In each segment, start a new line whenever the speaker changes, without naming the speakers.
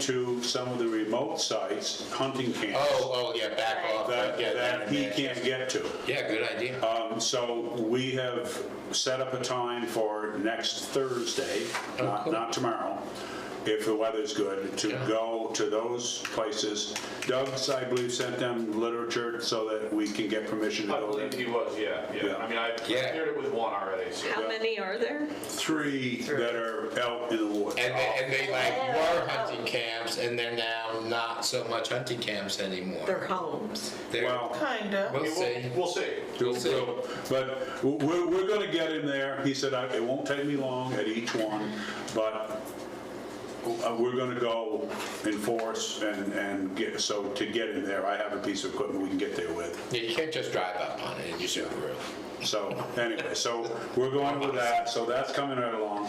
to some of the remote sites, hunting camps,
Oh, oh, yeah, back off.
that,
yeah,
that he
yeah.
can't get to.
Yeah, good idea.
Um, So we have set up a time for next Thursday, not,
Oh, cool.
not tomorrow, if the weather's good, to
Yeah.
go to those places. Doug's, I believe, sent them literature so that we can get permission to
I
go
believe
there.
he was, yeah,
Yeah.
yeah. I mean, I
Yeah.
cleared it with one already, so.
How many are there?
Three that are out in the woods.
And they, and they like
Oh.
were hunting camps, and they're now not so much hunting camps anymore.
Their homes.
They're-
Well,
Kinda.
we'll see.
We'll see.
We'll see.
But w- we're, we're gonna get him there. He said, "I- it won't take me long at each one, but uh, we're gonna go enforce and, and get, so to get in there, I have a piece of equipment we can get there with.
Yeah, you can't just drive up on it in your Subaru.
So, anyway, so we're going with that, so that's coming right along.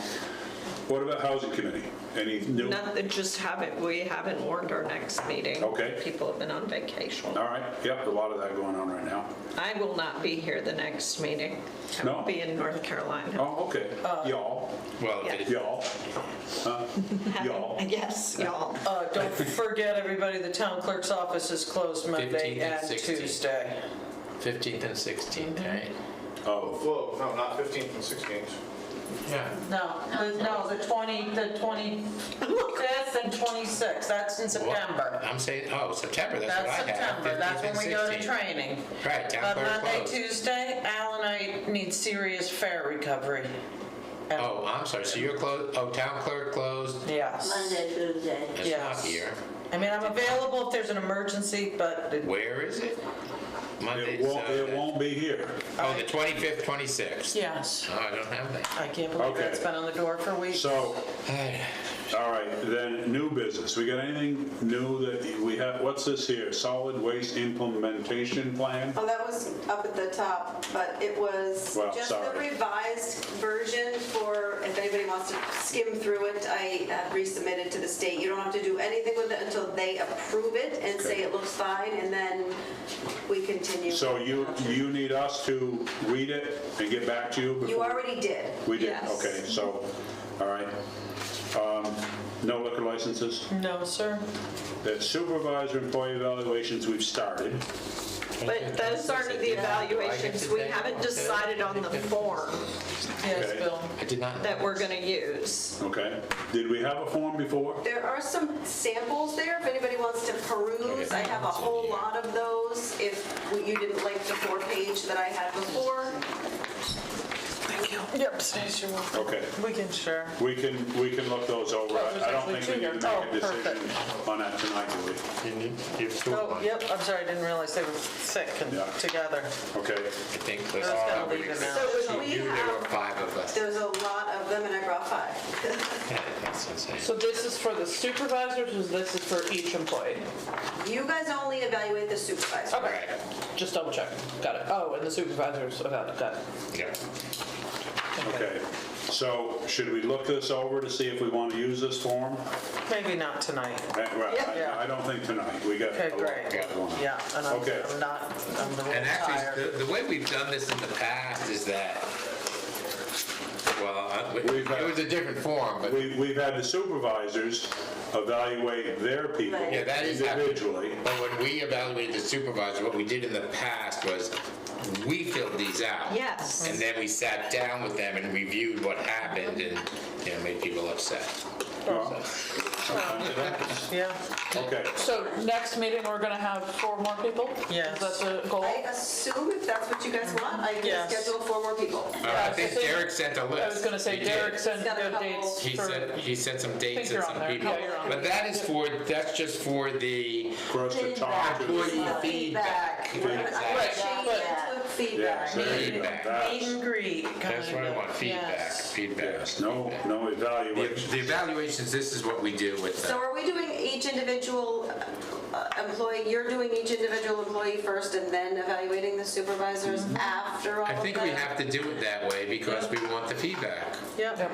What about housing committee? Any new?
Not, that just haven't, we haven't warned our next meeting.
Okay.
People have been on vacation.
All right, yep, a lot of that going on right now.
I will not be here the next meeting. I
No.
will be in North Carolina.
Oh, okay, y'all,
Well,
Yeah.
if it-
y'all,
Having-
y'all.
Yes, y'all.
Uh, don't forget, everybody, the town clerk's office is closed Monday
15th and
and
16th.
Tuesday.
15th and 16th, right?
oh,
Whoa, no, not 15th and 16th.
Yeah.
No, the- no, the 20, the 25th and 26th, that's in
Well,
September.
I'm saying, oh, September, that's what I
That's
had.
September, that's
15th and
when we go to
16th.
training.
Right, town
But
clerk
Monday,
closed.
Tuesday, Al and I need serious fare recovery. And-
Oh, I'm sorry, so you're closed, oh, town clerk closed,
Yes.
Monday, Tuesday.
it's not
Yes.
here.
I mean, I'm available if there's an emergency, but it-
Where is it? Monday,
it won't, it
so-
won't be here.
Oh, the 25th, 26th.
yes,
Oh, I don't have that.
I can't believe
Okay.
that's been on the door for weeks.
So,
Hey,
All right, then, new business, we got anything new that we have, what's this here, solid waste implementation plan?
Oh, that was up at the top, but it was
Well,
just the
sorry.
revised version for, if anybody wants to skim through it, I uh, resubmitted to the state. You don't have to do anything with it until they approve it and say it looks fine, and then we continue.
So you, you need us to read it and get back to you?
You
before-
already did.
We did,
Yes.
okay, so, all right. Um, No liquor licenses,
No, sir.
the supervisor employee evaluations, we've started.
But those aren't the evaluations. We haven't decided on the form
Yes,
Okay.
Bill.
I did not.
that we're gonna use.
Okay, did we have a form before?
There are some samples there, if anybody wants to peruse. I have a whole lot of those, if you didn't like the four-page that I had before.
Yep, stays your welcome.
Okay,
We can share.
we can, we can look those over, I I don't think we can make a
Oh, perfect.
decision on that tonight, do we?
Oh, yep, I'm sorry, I didn't realize they were sick and
Yeah.
together.
Okay,
I think
I
there's
was gonna leave it
probably,
now.
So we
you, there were
have,
five of us.
there's a lot of them, and I brought five.
That's insane.
So this is for the supervisors, or this is for each employee?
You guys only evaluate the supervisor.
Right,
Just double check. Got it. Oh, and the supervisors, oh, got it, got it.
yeah.
Okay, so should we look this over to see if we want to use this form?
Maybe not tonight.
Eh, Well,
Yeah.
I- I don't think tonight, we got.
Okay,
a lot
great.
going on.
Yeah, and I'm
Okay.
I'm not, I'm a
And
little
actually,
tired.
the, the way we've done this in the past is that, well, I-
We've had-
it was a different form, but
We, we've had the supervisors evaluate their people
Right.
Yeah, that is happening.
individually.
But when we evaluated the supervisor, what we did in the past was, we filled these out.
Yes.
And then we sat down with them and reviewed what happened and, you know, made people upset.
Well,
Yeah,
Okay,
So next meeting, we're gonna have four more people?
Yes.
Is that the goal?
I assume if that's what you guys want, I can
Yes.
schedule four more people.
Uh, I
so
think
they-
Derek sent a list.
I was gonna say
He did.
Derek sent
He's got a
good
couple-
dates
He
for,
sent, he sent some dates and
you're on
some
there.
people.
Yeah, you're on
But that is for, that's just for the,
for us to talk to.
Employee
Yeah,
feedback.
We're gonna- I'm gonna
Right,
change
but-
it to feedback.
so there you go.
Feedback.
meet
That's-
and greet.
that's what I
kinda.
want, feedback,
Yes.
feedback.
Yes, no, no
The
evaluation.
the evaluations, this is what we do with
So
them.
are we doing each individual uh, employee, you're doing each individual employee first and then evaluating the supervisors after all of
I
that?
think we have to do it that way because we want the feedback.
Yep,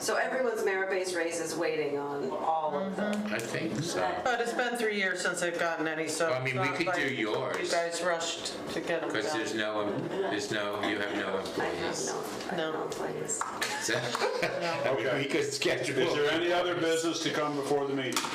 So everyone's merit-based raise is waiting on all of them.
I think so.
But it's been three years since they've gotten any, so.
Well, I mean,
it's
we
not
could do
like You
yours.
guys rushed to get them
Because there's
done.
no, there's no, you have no
I have
employees.
no, I have no plans.
So- I mean, We could schedule.
Is there any other business to come before the meeting?